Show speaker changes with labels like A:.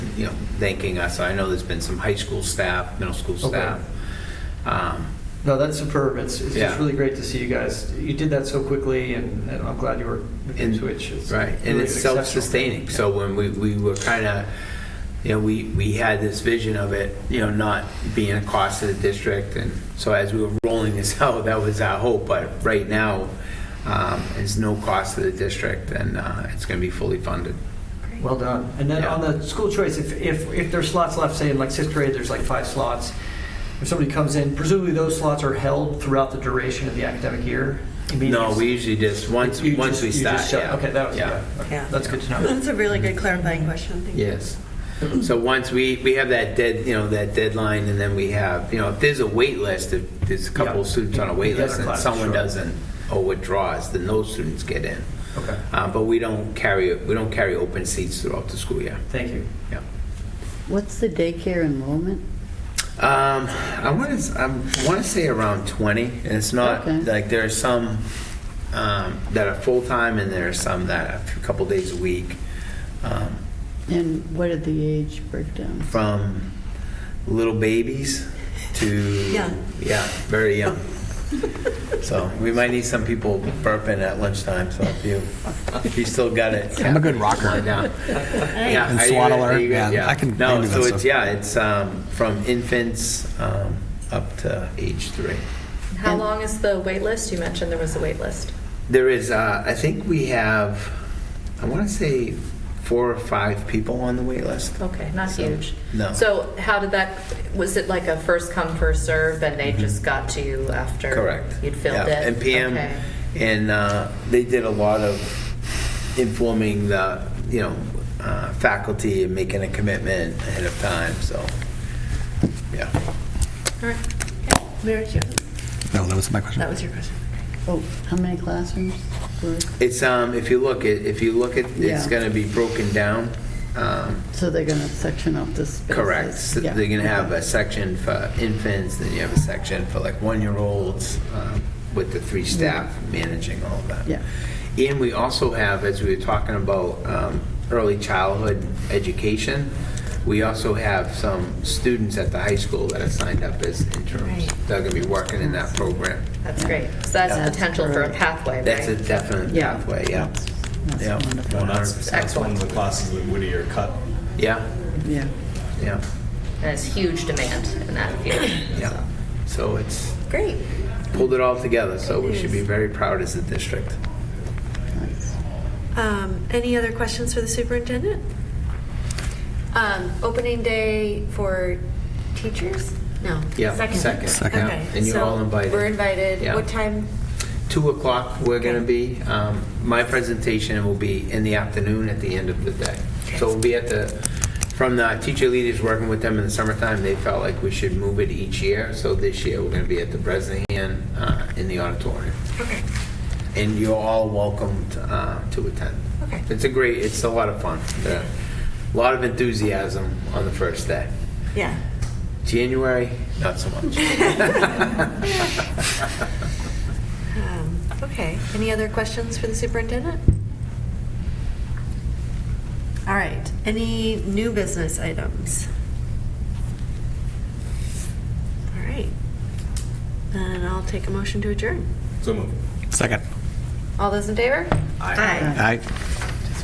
A: you know, thanking us. I know there's been some high school staff, middle school
B: Okay.
A: staff. Um,
B: No, that's superb. It's, it's
A: Yeah.
B: just really great to see you guys. You did that so quickly, and, and I'm glad you were with your
A: And-
B: Switch. It's
A: Right, and
B: really
A: it's
B: exceptional.
A: self-sustaining. So when we, we were kind of, you know, we, we had this vision of it, you know, not being a cost to the district. And so as we were rolling this out, that was our hope. But right now, um, it's no cost to the district and, uh, it's going to be fully funded.
B: Well done. And then
A: Yeah.
B: on the school choice, if, if, if there's slots left, say in like sixth grade, there's like five slots. If somebody comes in, presumably those slots are held throughout the duration of the academic year? Meaning
A: No,
B: it's-
A: we usually just, once,
B: you
A: once
B: just-
A: we
B: you just
A: start,
B: shut-
A: yeah.
B: Okay, that was, yeah.
C: Yeah.
B: Okay, That's good to know.
C: That's a really good clarifying question. Thank you.
A: Yes. So once we, we have that dead, you know, that deadline, and then we have, you know, if there's a wait list, if there's a couple
B: Yeah.
A: of students on a wait
B: The other
A: list and
B: classes,
A: someone
B: sure.
A: doesn't or withdraws, then those students get in.
B: Okay,
A: Uh, But we don't carry, we don't carry open seats throughout the school year.
B: thank you.
A: Yeah.
D: What's the daycare enrollment?
A: Um, I want to, I want to say around 20, and it's not,
D: Okay.
A: like, there are some um, that are full-time, and there are some that are a couple days a week. Um,
D: And what are the age breakdown?
A: from little babies to
C: Young.
A: yeah, very young. so we might need some people burping at lunchtime. So if you if you still got it,
E: I'm a good rocker.
A: line down.
C: Hey.
A: Yeah,
E: And
A: are you
E: swaddle
A: good?
E: her.
A: Are you good?
E: Yeah, I can- I
A: No,
E: can do
A: so
E: that
A: it's
E: stuff.
A: yeah, it's um, from infants um, up to age three.
F: How long is the wait list? You mentioned there was a wait list.
A: There is, uh, I think we have, I want to say four or five people on the wait list.
F: Okay, not
A: So-
F: huge.
A: No.
F: So how did that, was it like a first come, first serve, and they just got to you after?
A: Mm-hmm. Correct.
F: You'd filled
A: Yeah,
F: it?
A: And PM,
F: Okay.
A: and uh, they did a lot of informing the, you know, uh, faculty and making a commitment ahead of time, so, yeah.
F: All right.
C: Mary Jo,
E: No, that was my question.
C: that was your question.
D: Oh, how many classrooms? were-
A: It's, um, if you look, at if you look at, it's
D: Yeah.
A: going to be broken down. um,
D: So they're going to section up the spaces?
A: Correct. So
D: Yeah.
A: They're going to have a section for infants, then you have a section for like one-year-olds um, with the three staff managing all of that.
D: Yeah.
A: And we also have, as we were talking about um, early childhood education, we also have some students at the high school that are signed up as interns.
C: Right.
A: They're going to be working in that program.
F: That's great. So that's
D: That's
F: potential for a
D: great.
F: pathway, right?
A: That's a definite
D: Yeah.
A: pathway, yeah.
D: That's-
A: Yeah.
D: That's wonderful.
G: Well, that's, that's one of the classes that Whittier cut.
A: Yeah,
D: Yeah.
A: yeah,
F: And it's huge demand in that field.
A: yeah. So it's
F: Great.
A: pulled it all together, so we should be very proud as a district.
D: Nice.
C: Um, Any other questions for the superintendent?
H: Um, opening day for teachers? No.
A: Yeah, second.
H: Second.
A: Second.
E: Yeah.
H: Okay.
A: And you're
H: so
A: all invited.
H: We're invited.
A: Yeah.
H: What time?
A: Two o'clock, we're going to be, um, my presentation will be in the afternoon at the end of the day. So we'll be at the, from the teacher leaders working with them in the summertime, they felt like we should move it each year. So this year, we're going to be at the Bresnahan uh, in the auditorium.
H: Okay.
A: And you're all welcomed uh, to attend.
H: Okay.
A: It's a great, it's a lot of fun. There- A lot of enthusiasm on the first day.
C: Yeah.
A: January, not so much.
C: Um, Okay, any other questions for the superintendent? All right, any new business items? All right, then I'll take a motion to adjourn.
G: So moved.
E: Second.
C: All those in favor?
G: Aye.
C: Aye.
E: Aye.